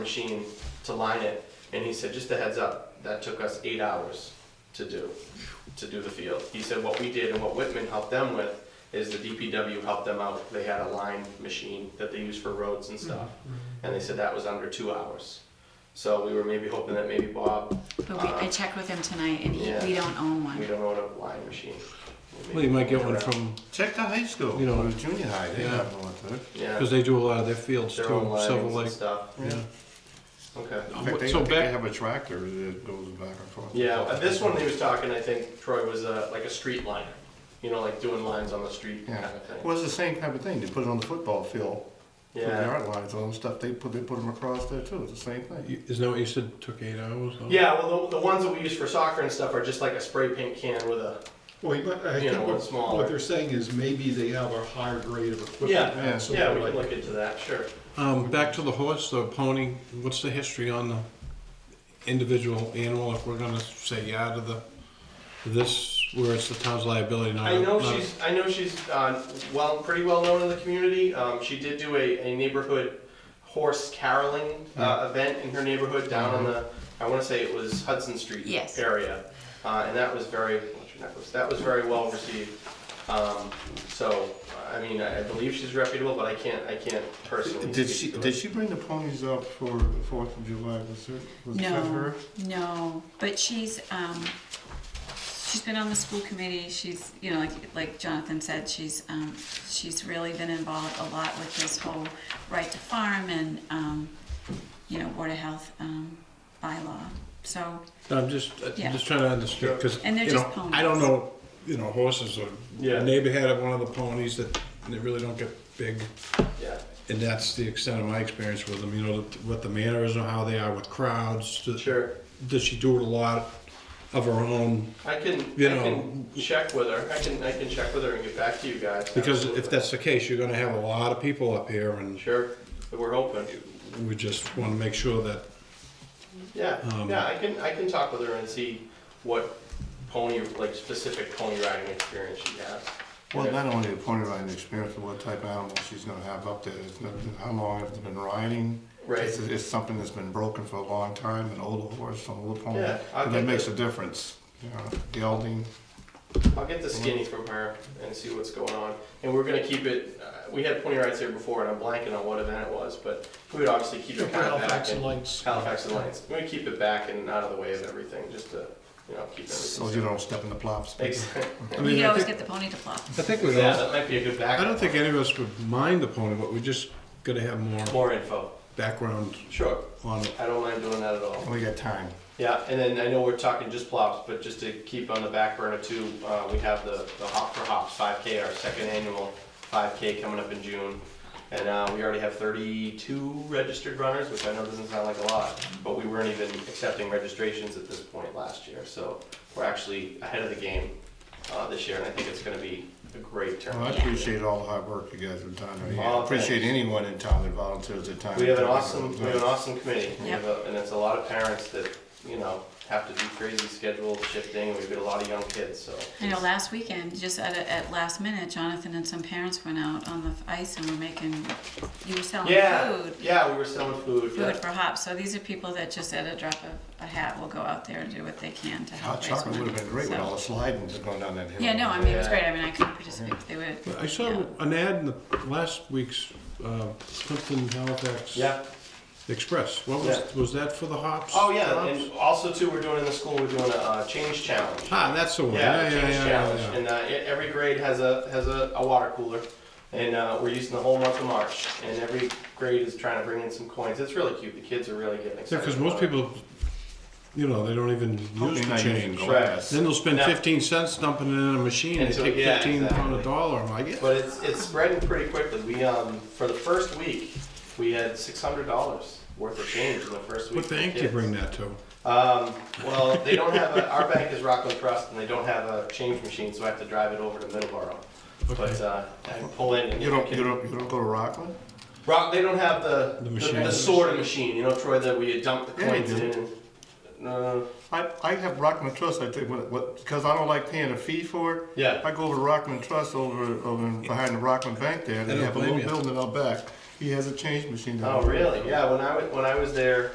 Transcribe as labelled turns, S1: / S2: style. S1: machine to line it, and he said, just a heads up, that took us eight hours to do, to do the field. He said, what we did and what Whitman helped them with is the DPW helped them out, they had a line machine that they use for roads and stuff, and they said that was under two hours. So we were maybe hoping that maybe Bob,
S2: But we, I checked with him tonight, and he,
S1: Yeah.
S2: we don't own
S1: we
S2: one.
S1: don't own a line machine.
S3: Well, you might get one from,
S4: Check the high school.
S3: You know,
S4: Or junior high. They
S3: yeah.
S4: have one too.
S1: Yeah,
S3: because they do a lot of their fields too,
S1: their own
S3: Silver
S1: lines and
S3: Lake.
S1: stuff,
S3: Yeah.
S1: okay.
S4: In fact, they,
S3: So
S4: I think they
S3: back-
S4: have a tractor that goes back and forth.
S1: Yeah, uh, this one he was talking, I think Troy was uh, like a street liner, you know, like doing lines on the street kind
S4: Yeah.
S1: of thing.
S4: Well, it's the same type of thing. They put it on the football field. for the
S1: Yeah.
S4: Yard lines, all them stuff. They put they put them across there too. It's the same thing.
S3: You- Isn't that what you said, took eight hours? though?
S1: Yeah, well, the, the ones that we use for soccer and stuff are just like a spray paint can with a.
S5: Well, you might- I
S1: You
S5: think
S1: know, it's
S5: what,
S1: smaller.
S5: what they're saying is maybe they have a higher grade of equipment.
S1: Yeah,
S5: now,
S4: yeah,
S5: so
S1: Yeah,
S5: they're
S1: we can
S5: like-
S1: look into that, sure.
S3: Um, back to the horse, the pony, what's the history on the individual animal, if we're gonna say yeah to the, this, where it's the town's liability, not.
S1: I know
S3: not-
S1: she's, I know she's, uh, well, pretty well known in the community. Um, she did do a, a neighborhood horse caroling, uh, event in her neighborhood down on the, I wanna say it was Hudson Street
S2: Yes.
S1: area. Uh, and that was very, what's your necklace? that was very well received. Um, so, I mean, I I believe she's reputable, but I can't, I can't personally.
S4: Did she
S1: speak to it.
S4: did she bring the ponies up for the Fourth of July? Was it was that
S2: No,
S4: her?
S2: no, but she's, um, she's been on the school committee, she's, you know, like, like Jonathan said, she's, um, she's really been involved a lot with this whole right to farm and, um, you know, Board of Health, um, bylaw, so,
S3: I'm just, I'm
S2: Yeah.
S3: just trying to understand, because,
S2: And they're
S3: you
S2: just
S3: know,
S2: ponies.
S3: I don't know, you know, horses are,
S1: Yeah.
S3: neighbor had one of the ponies that, they really don't get big.
S1: Yeah,
S3: And that's the extent of my experience with them, you know, what the manners or how they are with crowds. Does-
S1: sure.
S3: Does she do a lot of her own?
S1: I can, I
S3: You know-
S1: can check with her. I can, I can check with her and get back to you guys.
S3: Because if
S1: Absolutely.
S3: that's the case, you're gonna have a lot of people up here and
S1: Sure, we're open.
S3: we just wanna make sure that,
S1: Yeah,
S3: Um,
S1: yeah, I can, I can talk with her and see what pony, like specific pony riding experience she has.
S4: Well,
S1: Okay.
S4: not only the pony riding experience, but what type of animal she's going to have up there. It's not, how long have they been riding?
S1: Right.
S4: It's, it's something that's been broken for a long time. An older horse, an older pony.
S1: Yeah, I
S4: and that
S1: think
S4: makes
S1: that-
S4: a difference. You know, gelding.
S1: I'll get the skinny from her and see what's going on. And we're gonna keep it, uh, we had pony rides here before and I'm blanking on what event it was, but we would obviously keep it kind of back.
S5: Halifax
S1: and-
S5: and Lights.
S1: Halifax and Lights. We're gonna keep it back and out of the way of everything, just to, you know, keep everything.
S4: So you don't step in the plops.
S1: Ex-
S3: I
S2: we
S3: mean,
S2: could
S3: I
S2: always
S3: think,
S2: get the pony to flop.
S3: I think we
S1: Yeah,
S3: all,
S1: that might be a good back.
S3: I don't think any of us would mind the pony, but we just gotta have more
S1: More info,
S3: background
S1: sure.
S3: on it.
S1: I don't mind doing that at all.
S4: We got time.
S1: Yeah, and then I know we're talking just plops, but just to keep on the back burner too, uh, we have the, the Hop for Hops five K, our second annual five K coming up in June. And, uh, we already have thirty-two registered runners, which I know doesn't sound like a lot, but we weren't even accepting registrations at this point last year, so we're actually ahead of the game, uh, this year, and I think it's gonna be a great
S4: Well, I
S1: turnout.
S4: appreciate all the hard work you guys have done. I mean,
S1: Oh,
S4: I appreciate
S1: thanks.
S4: anyone in town that volunteers their time.
S1: We have an
S4: to do
S1: awesome,
S4: it.
S1: we have an awesome committee, We
S2: Yeah.
S1: have a- and it's a lot of parents that, you know, have to do crazy schedule shifting, we've got a lot of young kids, so.
S2: You know, last weekend, just at, at last minute, Jonathan and some parents went out on the ice and were making, you were selling
S1: Yeah,
S2: food.
S1: yeah, we were selling food.
S2: Food
S1: Yeah.
S2: for hops. So these are people that just at a drop of a hat will go out there and do what they can to help
S4: Hot
S2: raise
S4: chocolate would have
S2: money.
S4: been great with
S2: So-
S4: all the sliding that's going down that hill.
S2: Yeah, no, I mean, it was
S1: Yeah.
S2: great. I mean, I couldn't participate, but they would.
S3: I saw
S2: yeah.
S3: an ad in the last week's, uh, Clinton Halifax
S1: Yeah.
S3: Express. What was,
S1: Yeah.
S3: was that for the hops?
S1: Oh yeah,
S3: Hops?
S1: and also too, we're doing in the school. We're doing a uh, change challenge.
S3: Ah, that's the one.
S1: Yeah, the
S3: Yeah, yeah, yeah.
S1: change
S3: yeah,
S1: challenge.
S3: yeah.
S1: And uh, e- every grade has a has a, a water cooler, and uh, we're using the whole month of March. And every grade is trying to bring in some coins. It's really cute. The kids are really getting
S3: Yeah,
S1: excited.
S3: because most
S1: about it.
S3: people, you know, they don't even
S4: Hope
S3: use
S4: you're
S3: the
S4: not using
S3: change.
S4: glass.
S3: Then they'll spend
S1: No.
S3: fifteen cents dumping it in a machine. They
S1: And so-
S3: take
S1: yeah,
S3: fifteen pound
S1: exactly.
S3: a dollar. I'm like, yeah.
S1: But it's it's spreading pretty quickly. We um for the first week, we had six hundred dollars worth of change in the first week.
S3: What
S1: for the
S3: bank do you
S1: kids.
S3: bring that to?
S1: Um, well, they don't have, a our bank is Rockland Trust, and they don't have a change machine, so I have to drive it over to Middleborough. But,
S3: Okay.
S1: uh, I can pull in and.
S4: You don't, you don't, you don't go to Rockland?
S1: Rock, they don't have the,
S3: The
S1: the-
S3: machine.
S1: the sorter machine, you know, Troy, that we dump the
S4: Yeah, they
S1: coins
S4: do.
S1: in. Uh, No, no, no.
S4: I, I have Rockland Trust, I think, what, what, because I don't like paying a fee for it.
S1: Yeah.
S4: I go over to Rockland Trust over, over in- behind the Rockland Bank there,
S3: I
S4: they
S3: don't
S4: have a
S3: blame
S4: little
S3: you. Oh,
S4: building out back. He has a change machine down
S1: Oh,
S4: there.
S1: really? Yeah, when I was, when I was there,